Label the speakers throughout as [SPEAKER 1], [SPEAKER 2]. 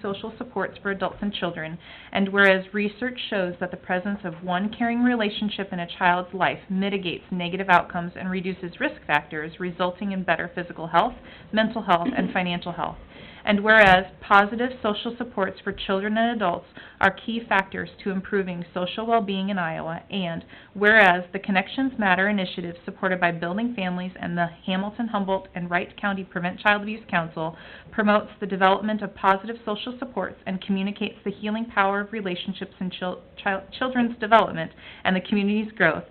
[SPEAKER 1] social supports for adults and children, and whereas research shows that the presence of one caring relationship in a child's life mitigates negative outcomes and reduces risk factors, resulting in better physical health, mental health, and financial health. And whereas positive social supports for children and adults are key factors to improving social well-being in Iowa, and whereas the Connections Matter initiative supported by Building Families and the Hamilton, Humboldt, and Wright County Prevent Child Abuse Council promotes the development of positive social supports and communicates the healing power of relationships in chil- chil- children's development and the community's growth.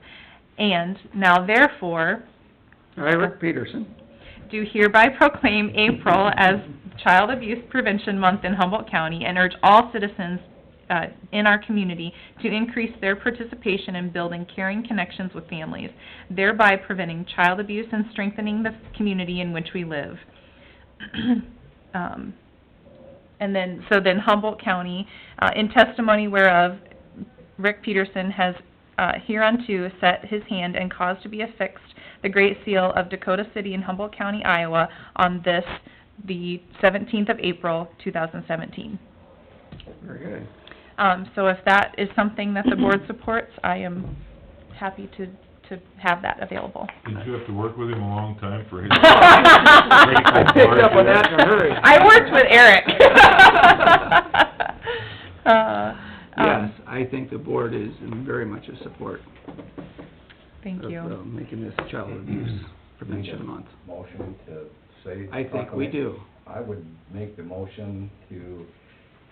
[SPEAKER 1] And now therefore,
[SPEAKER 2] I,
[SPEAKER 1] Uh,
[SPEAKER 2] Rick Peterson,
[SPEAKER 1] do hereby proclaim April as Child Abuse Prevention Month in Humboldt County and urge all citizens uh, in our community to increase their participation in building caring connections with families, thereby preventing child abuse and strengthening the community in which we live. Um, And then, so then Humboldt County, uh, in testimony whereof, Rick Peterson has uh, hereunto set his hand and caused to be affixed the Great Seal of Dakota City in Humboldt County, Iowa, on this, the seventeenth of April, two thousand seventeen.
[SPEAKER 2] very good.
[SPEAKER 1] Um, so if that is something that the board supports, I am happy to, to have that available.
[SPEAKER 3] Did you have to work with him a long time for his...
[SPEAKER 2] I picked up on that in a hurry.
[SPEAKER 1] I worked with Eric. Uh,
[SPEAKER 2] Yes,
[SPEAKER 1] um,
[SPEAKER 2] I think the board is in very much a support
[SPEAKER 1] Thank
[SPEAKER 2] of uh,
[SPEAKER 1] you.
[SPEAKER 2] making this Child Abuse Prevention Month.
[SPEAKER 4] Motion to say.
[SPEAKER 2] I think we do.
[SPEAKER 4] I would make the motion to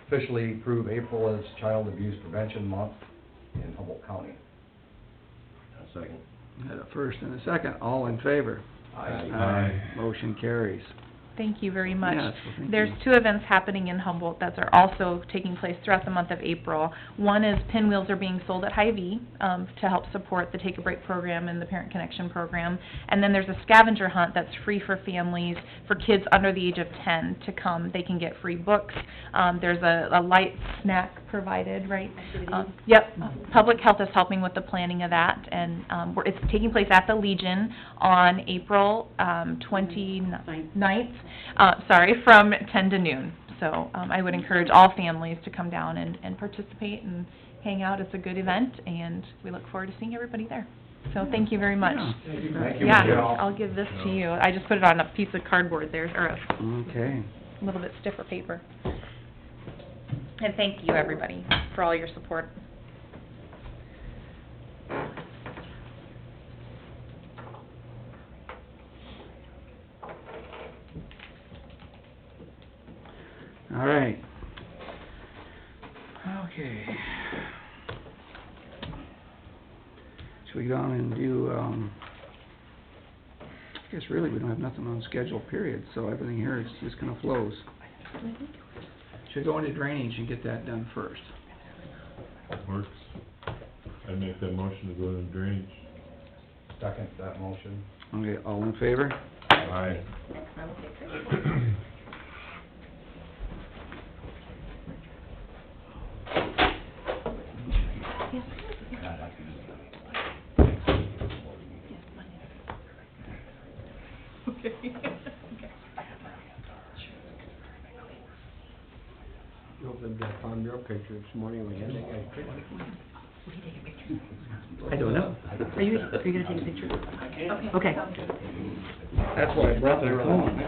[SPEAKER 4] officially approve April as Child Abuse Prevention Month in Humboldt County. second.
[SPEAKER 2] Had a first and a second, all in favor? Aye. Motion carries.
[SPEAKER 1] Thank you very much.
[SPEAKER 2] Yes, well, thank
[SPEAKER 1] There's
[SPEAKER 2] you.
[SPEAKER 1] two events happening in Humboldt that are also taking place throughout the month of April. One is pinwheels are being sold at Hy-Vee, um, to help support the Take a Break program and the Parent Connection program. And then there's a scavenger hunt that's free for families, for kids under the age of ten to come. They can get free books. Um, there's a, a light snack provided, right? Um, Yep, Public Health is helping with the planning of that, and, um, we're, it's taking place at the Legion on April, um, twenty-ninth, uh, sorry, from ten to noon. So, um, I would encourage all families to come down and, and participate and hang out. It's a good event, and we look forward to seeing everybody there. So, thank you very much.
[SPEAKER 2] Yeah.
[SPEAKER 4] Thank you,
[SPEAKER 1] Yeah,
[SPEAKER 4] Michelle.
[SPEAKER 1] I'll give this to you. I just put it on a piece of cardboard there, or a
[SPEAKER 2] Okay.
[SPEAKER 1] little bit stiffer paper. And thank you, everybody, for all your support.
[SPEAKER 2] All right. Okay. Should we go on and do, um, I guess really we don't have nothing on schedule period, so everything here is just kind of flows. Should go into drainage and get that done first.
[SPEAKER 3] Works. I'd make that motion to go to drainage.
[SPEAKER 4] Second that motion.
[SPEAKER 2] Okay, all in favor?
[SPEAKER 3] Aye.
[SPEAKER 5] Hope they've got Tom Bureau picture this morning, we had that guy.
[SPEAKER 2] I don't know.
[SPEAKER 6] Are you, are you gonna take a picture? Okay.
[SPEAKER 2] That's why I brought their phone.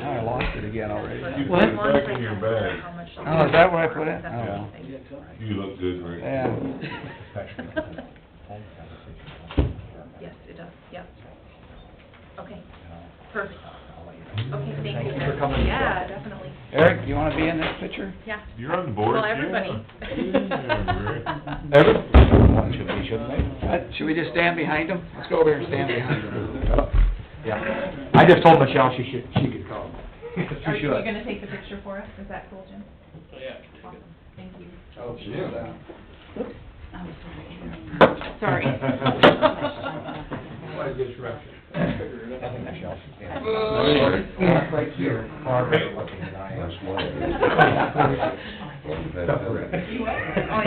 [SPEAKER 2] I lost it again already.
[SPEAKER 3] You put it back in your bag.
[SPEAKER 2] Oh, is that where I put it? Oh, well.
[SPEAKER 3] You look good, Rick.
[SPEAKER 2] Yeah.
[SPEAKER 1] Yes, it does, yep. Okay, perfect. Okay, thank you.
[SPEAKER 4] Thank you for coming.
[SPEAKER 1] Yeah, definitely,
[SPEAKER 2] Eric, you wanna be in this picture?
[SPEAKER 1] yeah.
[SPEAKER 3] You're on the board,
[SPEAKER 1] Well,
[SPEAKER 3] yeah.
[SPEAKER 1] everybody.
[SPEAKER 3] Yeah, Rick.
[SPEAKER 2] Everyone should be, shouldn't they? Uh, Should we just stand behind him? Let's go over here and stand behind him.
[SPEAKER 4] Yeah, I just told Michelle she should, she could call.
[SPEAKER 1] Are you gonna take the picture for us? Is that cool, Jim? Yeah. Awesome, thank you.
[SPEAKER 5] Oh,
[SPEAKER 1] Sorry.
[SPEAKER 5] What a disruption.
[SPEAKER 4] I think Michelle should stand.
[SPEAKER 5] Right here.
[SPEAKER 4] Far better looking than I am.
[SPEAKER 1] Oh,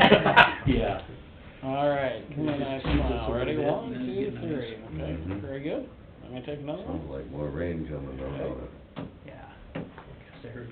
[SPEAKER 1] yeah.
[SPEAKER 5] Yeah. All right, come on, nice smile, ready, one, two, three, okay, very good. I'm gonna take another one.
[SPEAKER 1] Oh,
[SPEAKER 4] Like more rain coming
[SPEAKER 5] Okay. Yeah. Guess I heard